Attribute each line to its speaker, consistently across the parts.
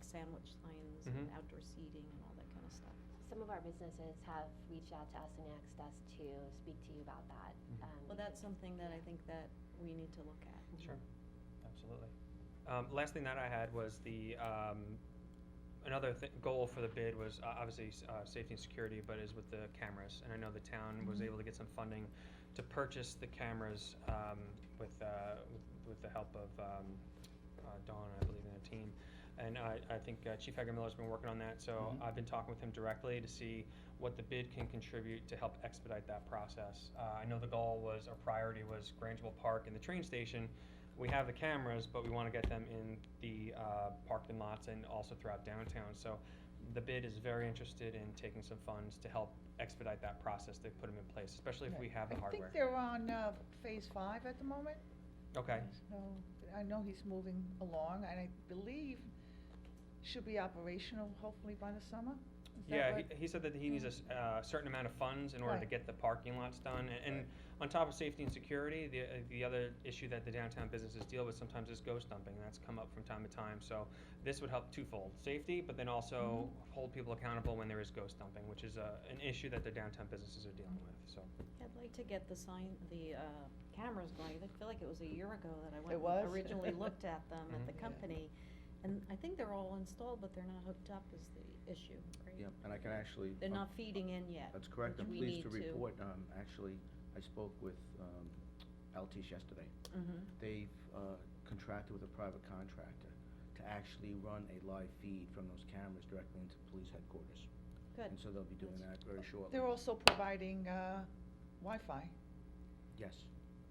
Speaker 1: sandwich signs
Speaker 2: Mhm.
Speaker 1: and outdoor seating and all that kind of stuff.
Speaker 3: Some of our businesses have reached out to us and asked us to speak to you about that.
Speaker 2: Mhm.
Speaker 3: um,
Speaker 1: Well, that's something that I think that we need to look at.
Speaker 2: Sure, absolutely. Um, last thing that I had was the, um, another thi- goal for the bid was uh, obviously, s- uh, safety and security, but is with the cameras. And I know the town was
Speaker 1: Mhm.
Speaker 2: able to get some funding to purchase the cameras, um, with, uh, with, with the help of, um, uh, Dawn, I believe, and the team. And I, I think uh, Chief Hager Miller's been working on that, so
Speaker 4: Mhm.
Speaker 2: I've been talking with him directly to see what the bid can contribute to help expedite that process. Uh, I know the goal was, our priority was Grangeville Park and the train station. We have the cameras, but we want to get them in the uh, parking lots and also throughout downtown. So the bid is very interested in taking some funds to help expedite that process, to put them in place, especially if we have the
Speaker 5: I
Speaker 2: hardware.
Speaker 5: think they're on uh, phase five at the moment.
Speaker 2: Okay,
Speaker 5: So, I know he's moving along, and I believe should be operational hopefully by the summer. Is that
Speaker 2: yeah,
Speaker 5: what-
Speaker 2: he, he said that he needs a s- uh, certain amount of funds in order to
Speaker 5: Right.
Speaker 2: get the parking lots done. A- And on top of safety and security, the, uh, the other issue that the downtown businesses deal with sometimes is ghost dumping. That's come up from time to time, so this would help twofold, safety, but then also
Speaker 5: Mm-hmm.
Speaker 2: hold people accountable when there is ghost dumping, which is a, an issue that the downtown businesses are dealing with, so.
Speaker 1: I'd like to get the sign, the uh, cameras going. I feel like it was a year ago that I went. and
Speaker 5: was?
Speaker 1: Originally looked at them at the
Speaker 5: Mhm. Yeah.
Speaker 1: company, and I think they're all installed, but they're not hooked up is the issue, right?
Speaker 4: Yep, and I can actually.
Speaker 1: They're
Speaker 4: um,
Speaker 1: not feeding in yet.
Speaker 4: That's correct,
Speaker 1: which
Speaker 4: I'm
Speaker 1: we
Speaker 4: pleased to
Speaker 1: need to.
Speaker 4: report, um, actually, I spoke with, um, Altice yesterday.
Speaker 1: Mhm.
Speaker 4: They've, uh, contracted with a private contractor to actually run a live feed from those cameras directly into police headquarters.
Speaker 1: Good.
Speaker 4: And so they'll be doing that very shortly.
Speaker 5: They're also providing uh, Wi-Fi,
Speaker 4: Yes,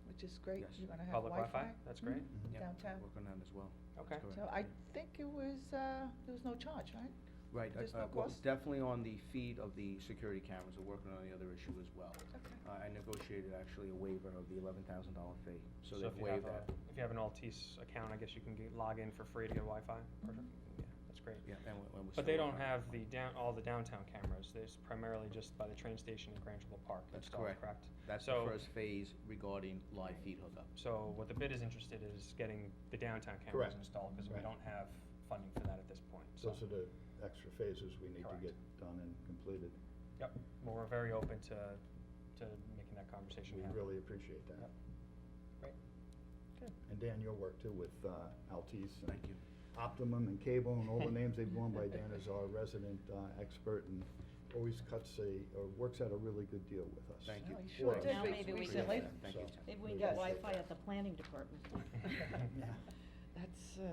Speaker 5: which is great.
Speaker 4: Yes.
Speaker 5: You're gonna have
Speaker 2: Public
Speaker 5: Wi-Fi.
Speaker 2: Wi-Fi, that's
Speaker 5: Mhm.
Speaker 1: Hmm.
Speaker 2: great.
Speaker 4: yeah,
Speaker 5: Downtown.
Speaker 4: working on that as well. That's
Speaker 2: Okay.
Speaker 4: correct.
Speaker 5: So I think it was, uh, there was no charge, right?
Speaker 4: Right,
Speaker 5: There's
Speaker 4: uh,
Speaker 5: no
Speaker 4: uh, well,
Speaker 5: cost?
Speaker 4: definitely on the feed of the security cameras, we're working on the other issue as well.
Speaker 5: Okay.
Speaker 4: Uh, I negotiated actually a waiver of the eleven thousand dollar fee, so
Speaker 2: if
Speaker 4: they've
Speaker 2: you have
Speaker 4: waived
Speaker 2: a-
Speaker 4: that.
Speaker 2: If you have an Altice account, I guess you can get, log in for free to get Wi-Fi.
Speaker 5: Mm-hmm.
Speaker 2: Perfect. Yeah, that's great.
Speaker 4: Yeah, and we- and we're
Speaker 2: But they
Speaker 4: still
Speaker 2: don't
Speaker 4: working on it.
Speaker 2: have the down, all the downtown cameras, there's primarily just by the train station in Grangeville Park
Speaker 4: That's
Speaker 2: installed,
Speaker 4: correct.
Speaker 2: correct?
Speaker 4: That's the
Speaker 2: So-
Speaker 4: first phase regarding live feed hookup.
Speaker 2: So what the bid is interested is getting the downtown cameras
Speaker 6: Correct.
Speaker 2: installed, because we
Speaker 6: Right.
Speaker 2: don't have funding for that at this point, so.
Speaker 6: Those are the extra phases we need to
Speaker 2: Correct.
Speaker 6: get done and completed.
Speaker 2: Yep, well, we're very open to, to making that conversation
Speaker 6: We
Speaker 2: happen.
Speaker 6: really appreciate that.
Speaker 2: Yep. Great. Good.
Speaker 6: And Dan, your work too with uh, Altice and
Speaker 4: Thank you.
Speaker 6: Optimum and Cable and all the names they've gone by. Dan is our resident uh, expert and always cuts a, or works out a really good deal with us.
Speaker 4: Thank
Speaker 5: No,
Speaker 1: Oh,
Speaker 4: you.
Speaker 5: he
Speaker 6: For
Speaker 5: sure
Speaker 6: us.
Speaker 5: did
Speaker 1: Now
Speaker 5: re-
Speaker 1: maybe we can-
Speaker 5: recently.
Speaker 6: Yeah,
Speaker 4: Thank
Speaker 6: so
Speaker 4: you.
Speaker 1: Maybe we
Speaker 6: we
Speaker 1: can get
Speaker 6: appreciate
Speaker 1: Wi-Fi
Speaker 6: that.
Speaker 1: at the planning department.
Speaker 6: Yeah.
Speaker 5: That's, uh,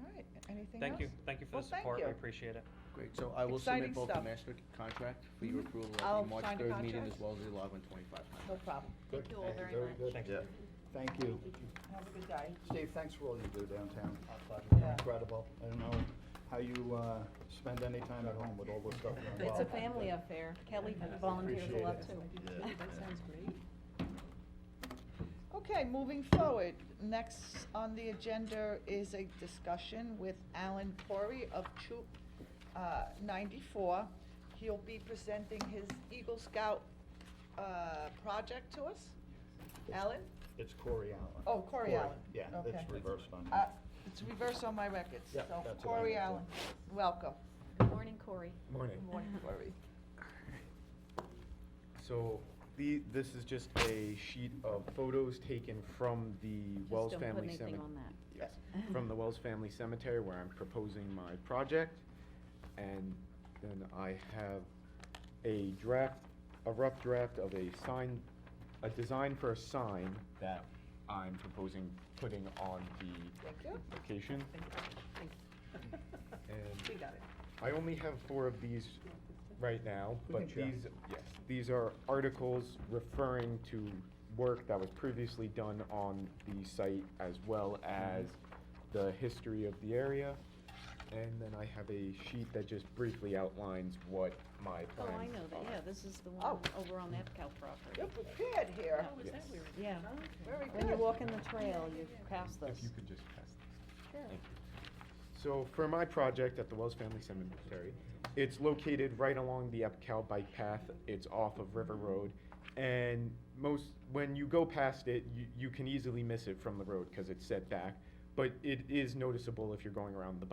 Speaker 5: all right, anything else?
Speaker 2: Thank you, thank you for
Speaker 5: Well,
Speaker 2: the
Speaker 5: thank
Speaker 2: support, we
Speaker 5: you.
Speaker 2: appreciate it.
Speaker 4: Great, so I will submit
Speaker 5: Exciting
Speaker 4: both the
Speaker 5: stuff.
Speaker 4: master contract for your
Speaker 5: Mhm.
Speaker 4: approval at
Speaker 5: I'll
Speaker 4: the March
Speaker 5: sign the
Speaker 4: third meeting
Speaker 5: contract.
Speaker 4: as well as the eleven twenty-five.
Speaker 5: No problem.
Speaker 6: Good.
Speaker 1: you all very much.
Speaker 6: Very
Speaker 2: Thank
Speaker 6: good.
Speaker 2: you.
Speaker 6: Thank you.
Speaker 5: Have a good day.
Speaker 6: Steve, thanks for all you do downtown.
Speaker 5: Yeah.
Speaker 6: Incredible. I don't know how you uh, spend any time at home with all this stuff. going
Speaker 1: It's a
Speaker 6: on.
Speaker 1: family affair. Kelly volunteers a
Speaker 6: Appreciate
Speaker 1: lot
Speaker 6: it.
Speaker 1: too.
Speaker 6: Yeah. That sounds
Speaker 1: great.
Speaker 5: Okay, moving forward, next on the agenda is a discussion with Alan Corey of Troop uh, 94. He'll be presenting his Eagle Scout uh, project to us. Alan?
Speaker 6: It's Corey Allen.
Speaker 5: Oh, Corey Allen.
Speaker 6: Yeah,
Speaker 5: Okay.
Speaker 6: it's reversed on you.
Speaker 5: Uh, It's reversed on my records.
Speaker 6: Yeah,
Speaker 5: So
Speaker 6: that's what I
Speaker 5: Corey
Speaker 6: meant, yeah.
Speaker 5: Allen, welcome.
Speaker 1: Good morning, Corey.
Speaker 7: Morning.
Speaker 5: Good morning, Corey.
Speaker 7: So the, this is just a sheet of photos taken from the
Speaker 1: Just
Speaker 7: Wells
Speaker 1: don't put
Speaker 7: Family Cemetery.
Speaker 1: anything on that.
Speaker 7: Yes, from the Wells Family Cemetery where I'm proposing my project. And then I have a draft, a rough draft of a sign, a design for a sign that I'm proposing putting on
Speaker 5: Thank
Speaker 7: the
Speaker 5: you.
Speaker 7: location. And-
Speaker 5: We got it.
Speaker 7: I only have four of these right now,
Speaker 6: We
Speaker 7: but
Speaker 6: can share.
Speaker 7: these, yes, these are articles referring to work that was previously done on the site as well as the history of the area. And then I have a sheet that just briefly outlines what my plans
Speaker 1: Oh,
Speaker 7: are.
Speaker 1: I know that, yeah, this is the one
Speaker 5: Oh.
Speaker 1: over on Epcal property.
Speaker 5: You're prepared here.
Speaker 7: is that where
Speaker 1: Yeah,
Speaker 5: Very good.
Speaker 1: when you walk in the trail, you pass this.
Speaker 7: If you could just pass this.
Speaker 5: Sure.
Speaker 7: Thank you. So for my project at the Wells Family Cemetery, it's located right along the Epcal bike path. It's off of River Road. And most, when you go past it, you, you can easily miss it from the road because it's set back. But it is noticeable if you're going around the bike